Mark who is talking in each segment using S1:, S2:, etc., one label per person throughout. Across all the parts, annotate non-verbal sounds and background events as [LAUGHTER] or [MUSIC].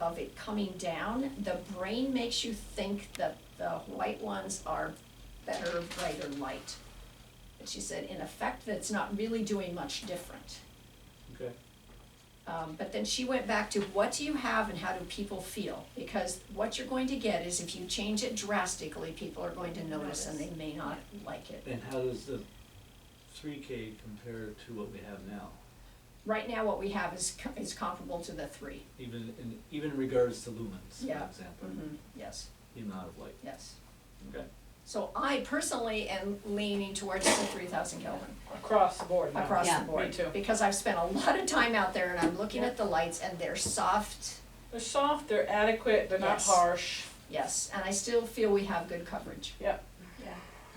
S1: of it coming down, the brain makes you think that the white ones are better, brighter light. But she said, in effect, that it's not really doing much different.
S2: Okay.
S1: Um, but then she went back to what do you have and how do people feel? Because what you're going to get is if you change it drastically, people are going to notice and they may not like it.
S2: And how does the three K compare to what we have now?
S1: Right now, what we have is, co- is comparable to the three.
S2: Even in, even in regards to lumens, for
S1: Yeah. Mm-hmm.
S2: example,
S1: Yes,
S2: the amount of light.
S1: yes.
S2: Okay.
S1: So I personally am leaning towards the three thousand Kelvin
S3: Across the board now.
S1: across
S4: Yeah.
S1: the
S4: Me
S1: board.
S3: too.
S1: Because I've spent a lot of time out there and I'm looking at the lights and they're soft,
S3: They're soft, they're adequate, they're not
S1: Yes.
S3: harsh.
S1: yes, and I still feel we have good coverage.
S3: I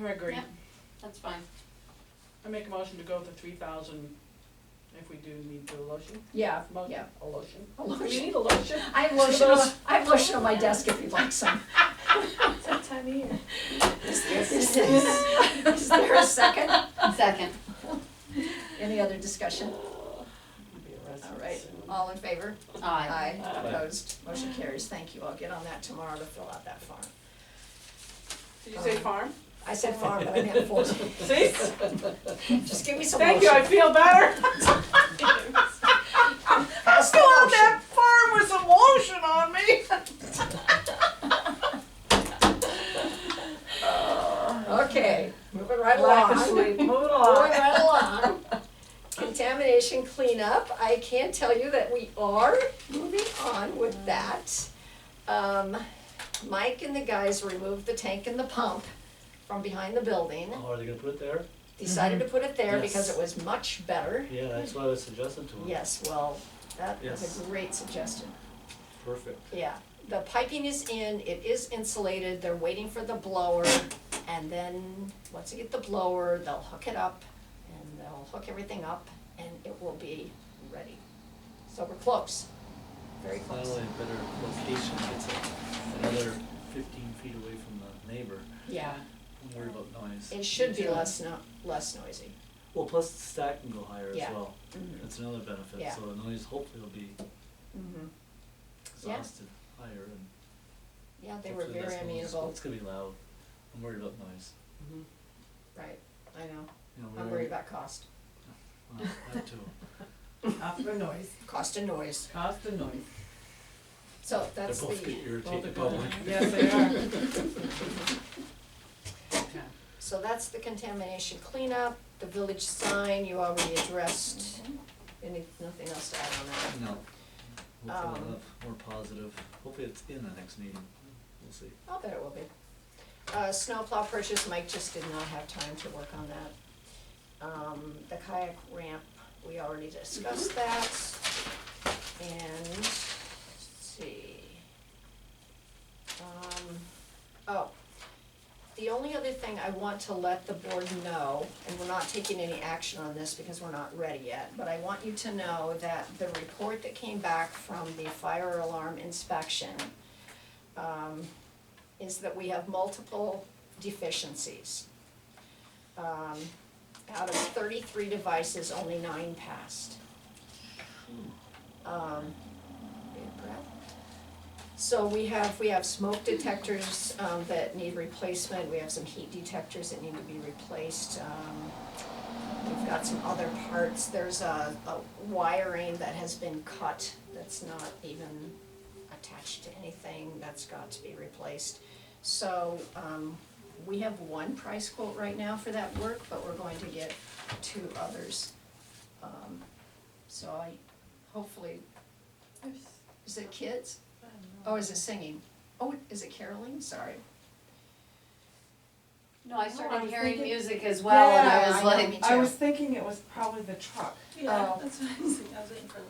S3: agree.
S4: Yep. That's fine.
S3: I make a motion to go with the three thousand if we do need the lotion.
S1: Yeah,
S3: Motion,
S1: yeah.
S3: a lotion.
S1: A
S3: Do we
S1: lotion.
S3: need a lotion?
S1: I have lotion, on- I have lotion on my desk if you'd like some.
S5: It's that time of year.
S1: Is there a second?
S4: Second.
S1: Any other discussion?
S3: Be a
S1: All
S3: resident
S1: right,
S3: soon.
S1: all in favor?
S4: Aye.
S1: Aye, opposed, motion carries, thank you, I'll get on that tomorrow to fill out that form. Um,
S3: Did you say farm?
S1: I said farm, but I meant full,
S3: See?
S1: [LAUGHS] just give me some
S3: Thank you, I
S1: lotion.
S3: feel better.
S1: Pass the
S3: Go on
S1: lotion.
S3: [LAUGHS] that farm with some lotion on me.
S1: Okay, moving right
S3: Lack
S1: along.
S3: of sleep, moving
S1: Moving
S3: along.
S1: right along. Contamination cleanup, I can tell you that we are moving on with that. Um, Mike and the guys removed the tank and the pump from behind the building,
S2: Oh, are they gonna put it there?
S1: decided to put it there because
S2: Yes.
S1: it was much better.
S2: Yeah, that's what I suggested to them.
S1: Yes, well, that was
S2: Yes.
S1: a great suggestion.
S2: Perfect.
S1: Yeah, the piping is in, it is insulated, they're waiting for the blower, and then, once they get the blower, they'll hook it up, and they'll hook everything up, and it will be ready. So we're close, very close,
S2: Finally, a better location, it's another fifteen feet away from the neighbor,
S1: yeah,
S2: I'm worried about noise.
S1: it should be less no, less noisy,
S2: Well, plus the stack can go higher as
S1: Yeah. Mm-hmm.
S2: well, that's another benefit,
S1: Yeah.
S2: so the noise hopefully will be
S1: hmm Yeah.
S2: exhausted higher and
S1: yeah, they were
S2: hopefully
S1: very
S2: less noise.
S1: amenable,
S2: It's gonna be loud, I'm worried about noise,
S1: right, I know,
S2: you know,
S1: I'm
S2: we already-
S1: worried about cost,
S2: Well,
S6: [LAUGHS]
S2: that too.
S3: Mm-hmm.
S6: After noise,
S1: cost and noise,
S6: cost and noise.
S1: so that's the.
S2: They're both gonna
S6: Both
S2: irritate the
S6: are
S2: public.
S6: good.
S3: Yes, they are.
S6: Yeah.
S1: So that's the contamination cleanup, the village sign you already addressed. Any, nothing else to add on that?
S2: No, hopefully we'll
S1: Um,
S2: have more positive, hopefully it's in the next meeting, we'll see.
S1: I'll bet it will be. Uh, snowplow purchase, Mike just did not have time to work on that. Um, the kayak ramp, we already discussed that. And, let's see. Um, oh, the only other thing I want to let the board know, and we're not taking any action on this because we're not ready yet, but I want you to know that the report that came back from the fire alarm inspection, um, is that we have multiple deficiencies. Um, out of thirty-three devices, only nine passed. Um, big breath. So we have, we have smoke detectors, um, that need replacement, we have some heat detectors that need to be replaced, um, we've got some other parts, there's a, a wiring that has been cut, that's not even attached to anything, that's got to be replaced. So, um, we have one price quote right now for that work, but we're going to get two others. Um, so I, hopefully, is it kids? Oh, is it singing? Oh, is it caroling? Sorry.
S4: No, I
S6: I
S4: started
S6: was
S4: hearing
S6: thinking-
S4: music as well and
S1: Yeah,
S4: I was
S1: I know, me
S4: like,
S1: too.
S6: I was thinking it was probably the truck.
S5: Yeah,
S1: Oh.
S5: that's what I was thinking, I was waiting for the.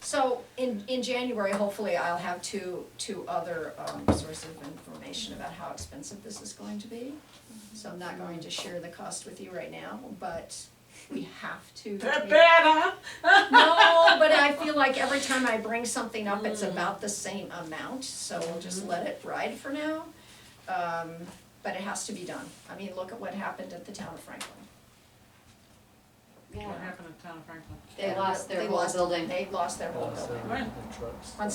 S1: So in, in January, hopefully I'll have two, two other, um, sources of information about how expensive this is going to be. So I'm not going to share the cost with you right now, but we have to.
S3: That
S1: make-
S3: bad, huh?
S1: No, but I feel like every time I bring something up, it's about the same amount, so we'll just let it ride for now. Um, but it has to be done. I mean, look at what happened at the town of Franklin.
S4: yeah,
S3: happened in town of Franklin?
S4: they lost their
S1: They
S4: whole building.
S1: They lost their whole
S2: Uh, so
S1: building.
S3: Right.
S2: the trucks.
S1: On